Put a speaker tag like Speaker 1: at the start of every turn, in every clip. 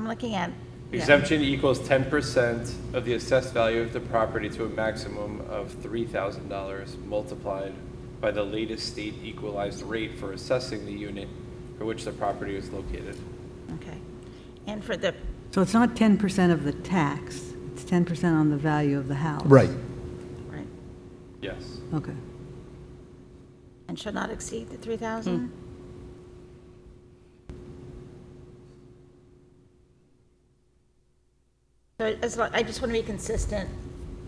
Speaker 1: looking at. yeah.
Speaker 2: Exemption equals ten percent of the assessed value of the property to a maximum of three thousand dollars multiplied by the latest state equalized rate for assessing the unit for which the property is located.
Speaker 1: Okay. And for the,
Speaker 3: So it's not 10% of the tax, it's 10% on the value of the house.
Speaker 4: Right.
Speaker 1: right,
Speaker 2: Yes.
Speaker 3: Okay.
Speaker 1: and shall not exceed the 3,000? So as long, I just want to be consistent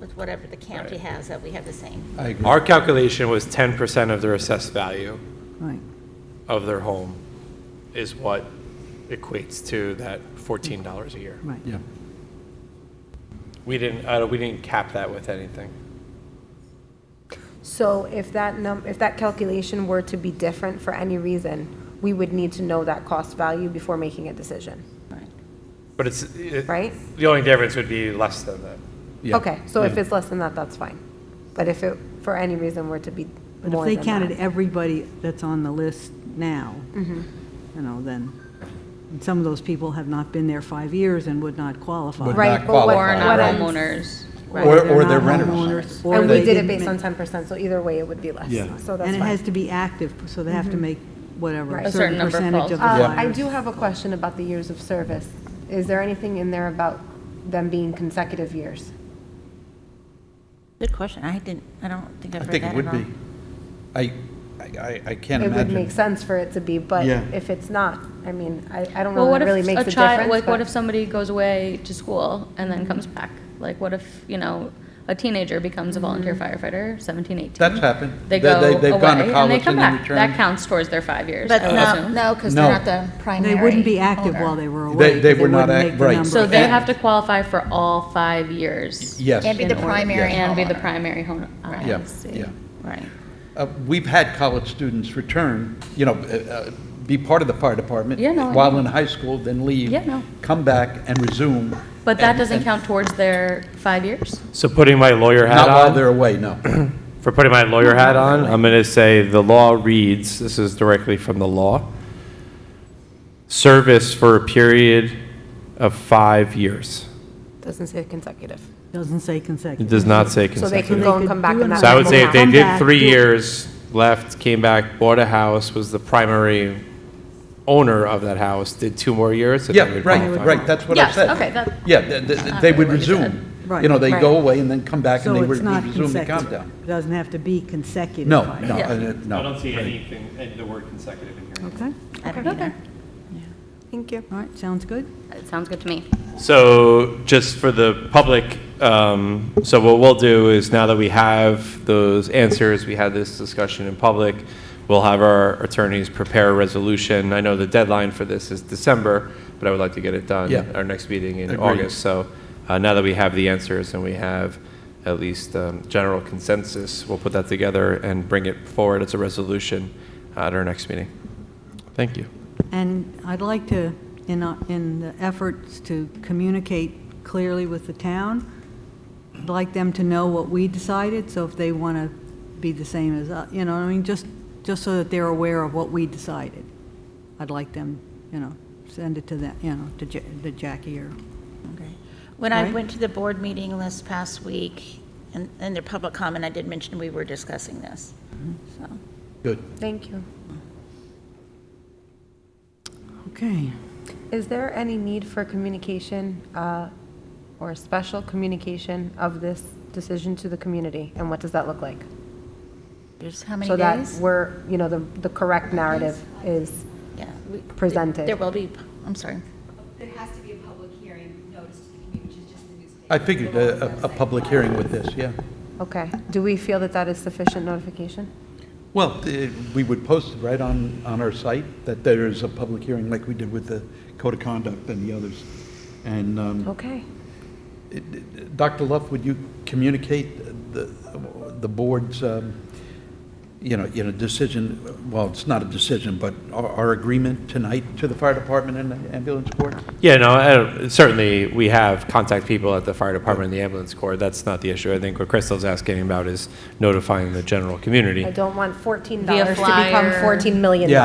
Speaker 1: with whatever the county
Speaker 2: Right.
Speaker 1: has, that we have the same.
Speaker 4: I agree.
Speaker 2: Our calculation was ten percent of their assessed value
Speaker 3: Right.
Speaker 2: of their home is what equates to that fourteen dollars a year.
Speaker 3: Right.
Speaker 4: Yeah.
Speaker 2: We didn't, uh, we didn't cap that with anything.
Speaker 5: So if that num, if that calculation were to be different for any reason, we would need to know that cost value before making a decision,
Speaker 1: Right.
Speaker 2: But it's, it-
Speaker 5: right?
Speaker 2: the only difference would be less than that.
Speaker 4: Yeah.
Speaker 5: Okay, so if
Speaker 4: Yeah.
Speaker 5: it's less than that, that's fine. But if it, for any reason, were to be
Speaker 3: But if
Speaker 5: more
Speaker 3: they
Speaker 5: than
Speaker 3: counted
Speaker 5: that. Mm-hmm.
Speaker 3: everybody that's on the list now, you know, then, and some of those people have not been there five years and would not qualify.
Speaker 4: Would
Speaker 5: Right,
Speaker 4: not
Speaker 5: but what-
Speaker 4: qualify.
Speaker 6: Or not
Speaker 5: what I'm-
Speaker 6: homeowners.
Speaker 5: Right.
Speaker 4: Or, or they're
Speaker 3: not
Speaker 4: renters.
Speaker 3: homeowners, or
Speaker 5: And we
Speaker 3: they
Speaker 5: did it
Speaker 3: didn't
Speaker 5: based on
Speaker 3: ma-
Speaker 5: ten percent, so either way, it would be less,
Speaker 4: Yeah.
Speaker 5: so that's
Speaker 3: And it
Speaker 5: fine. Mm-hmm.
Speaker 3: has to be active, so they have to make whatever,
Speaker 5: Right.
Speaker 3: a
Speaker 5: A
Speaker 3: certain
Speaker 6: certain number
Speaker 3: percentage of the
Speaker 6: falls.
Speaker 5: Uh, I
Speaker 3: flyers.
Speaker 5: do have a question about the years of service. Is there anything in there about them being consecutive years?
Speaker 1: Good question. I didn't, I don't think
Speaker 4: I
Speaker 1: I've read
Speaker 4: think
Speaker 1: that at
Speaker 4: it would be.
Speaker 1: all.
Speaker 4: I, I- I, I can't
Speaker 5: It would
Speaker 4: imagine.
Speaker 5: make sense for it to be, but
Speaker 4: Yeah.
Speaker 5: if it's not, I mean, I, I don't
Speaker 6: Well,
Speaker 5: know
Speaker 6: what
Speaker 5: that it really
Speaker 6: if
Speaker 5: makes
Speaker 6: a
Speaker 5: a difference.
Speaker 6: child, like,
Speaker 5: but-
Speaker 6: what if somebody goes away to school and then comes back? Like, what if, you know, a teenager becomes a volunteer firefighter, 17, 18?
Speaker 4: That's happened.
Speaker 6: They
Speaker 4: They-
Speaker 6: go
Speaker 4: they-
Speaker 6: away
Speaker 4: they've gone to
Speaker 6: and they
Speaker 4: college and
Speaker 6: come
Speaker 4: then
Speaker 6: back. That
Speaker 4: returned.
Speaker 6: counts towards their five years,
Speaker 7: But
Speaker 6: I would
Speaker 7: no,
Speaker 6: assume.
Speaker 7: no, because they're
Speaker 4: No.
Speaker 7: not the primary.
Speaker 3: They wouldn't be active
Speaker 7: holder.
Speaker 3: while they were away.
Speaker 4: They- they
Speaker 3: 'cause
Speaker 4: were not
Speaker 3: wouldn't
Speaker 4: act-
Speaker 3: make the
Speaker 4: right.
Speaker 3: number.
Speaker 6: So they
Speaker 4: And-
Speaker 6: have to qualify for all five years.
Speaker 4: Yes.
Speaker 7: And be
Speaker 6: in
Speaker 7: the
Speaker 6: order-
Speaker 7: primary
Speaker 6: And be the
Speaker 7: homeowner.
Speaker 6: primary homeowner. I
Speaker 4: Yeah,
Speaker 6: see.
Speaker 4: yeah.
Speaker 1: Right.
Speaker 4: Uh, We've had college students return, you know, uh, uh, be part of the fire department.
Speaker 6: Yeah, no, I
Speaker 4: While
Speaker 6: know.
Speaker 4: in high school, then leave.
Speaker 6: Yeah, no.
Speaker 4: Come back and resume.
Speaker 6: But that
Speaker 4: and-
Speaker 6: doesn't
Speaker 4: and
Speaker 6: count towards their five years?
Speaker 2: So putting my lawyer hat
Speaker 4: Not
Speaker 2: on.
Speaker 4: while they're away, no.
Speaker 2: for putting my lawyer hat on, I'm going to say the law reads, this is directly from the law, service for a period of five years.
Speaker 5: Doesn't say consecutive.
Speaker 3: Doesn't say
Speaker 2: It
Speaker 3: consecutive.
Speaker 2: does not say
Speaker 5: So they
Speaker 2: consecutive.
Speaker 5: can
Speaker 3: Consecutive.
Speaker 5: go and come back
Speaker 3: They could
Speaker 5: and
Speaker 3: do
Speaker 5: that.
Speaker 2: So I would
Speaker 5: will
Speaker 2: say if
Speaker 5: count.
Speaker 2: they
Speaker 3: Come
Speaker 2: did
Speaker 3: back,
Speaker 2: three
Speaker 3: do it.
Speaker 2: years, left, came back, bought a house, was the primary owner of that house, did two more years, so they
Speaker 4: Yeah,
Speaker 2: would
Speaker 4: right,
Speaker 2: qualify.
Speaker 4: right, that's what I
Speaker 6: Yes,
Speaker 4: said.
Speaker 6: okay, that-
Speaker 4: Yeah, th- th-
Speaker 6: I
Speaker 4: they
Speaker 6: heard
Speaker 4: would
Speaker 6: what you said.
Speaker 4: resume.
Speaker 3: Right.
Speaker 4: You know, they go
Speaker 5: Right.
Speaker 4: away and then come back and
Speaker 3: So
Speaker 4: they
Speaker 3: it's
Speaker 4: would
Speaker 3: not
Speaker 4: resume the
Speaker 3: consecutive.
Speaker 4: countdown.
Speaker 3: It Doesn't have to be consecutive.
Speaker 4: No,
Speaker 3: five
Speaker 4: no,
Speaker 3: years.
Speaker 4: uh, no. right.
Speaker 2: anything, the word consecutive in here.
Speaker 3: Okay,
Speaker 1: I don't either.
Speaker 5: Thank you.
Speaker 3: all right, sounds good.
Speaker 6: It sounds good to me.
Speaker 2: So just for the public, um, so what we'll do is now that we have those answers, we had this discussion in public, we'll have our attorneys prepare a resolution. I know the deadline for this is December, but I would like to get it done.
Speaker 4: Yeah.
Speaker 2: at Our next meeting in
Speaker 4: Agreed.
Speaker 2: August. So uh, now that we have the answers and we have at least um, general consensus, we'll put that together and bring it forward as a resolution uh, at our next meeting. Thank you.
Speaker 3: And I'd like to, in, uh, in the efforts to communicate clearly with the town, I'd like them to know what we decided, so if they want to be the same as, us, you know, what I mean, just, just so that they're aware of what we decided. I'd like them, you know, send it to them, you know, to Ja- to Jackie or,
Speaker 1: Okay. When I
Speaker 3: Right?
Speaker 1: went to the board meeting this past week, and, and their public comment, I did mention we were discussing this, so.
Speaker 4: Good.
Speaker 5: Thank you.
Speaker 3: okay.
Speaker 5: Is there any need for communication uh, or special communication of this decision to the community? And what does that look like?
Speaker 1: There's how many
Speaker 5: So that
Speaker 1: days?
Speaker 5: we're, you know, the, the correct narrative is,
Speaker 1: Yeah, we-
Speaker 5: presented.
Speaker 1: There will be, I'm sorry.
Speaker 8: There has to be a public hearing notice to the community, which is just the newspaper.
Speaker 4: I figured a, a- a public hearing with this, yeah.
Speaker 5: okay. Do we feel that that is sufficient notification?
Speaker 4: Well, eh, we would post it right on, on our site that there is a public hearing like we did with the code of conduct and the others. And
Speaker 1: Mm-hmm.
Speaker 4: um,
Speaker 5: Okay.
Speaker 4: eh, eh, Dr. Luff, would you communicate the, the board's, um, you know, you know, decision, well, it's not a decision, but our, our agreement tonight to the fire department and the ambulance corps?
Speaker 2: Yeah, no, I don't- certainly, we have contact people at the fire department and the ambulance corps. That's not the issue. I think what Crystal's asking about is notifying the general community.
Speaker 5: I don't want $14 to
Speaker 6: Via
Speaker 5: become
Speaker 6: flyer.
Speaker 5: $14 million.
Speaker 4: Yeah,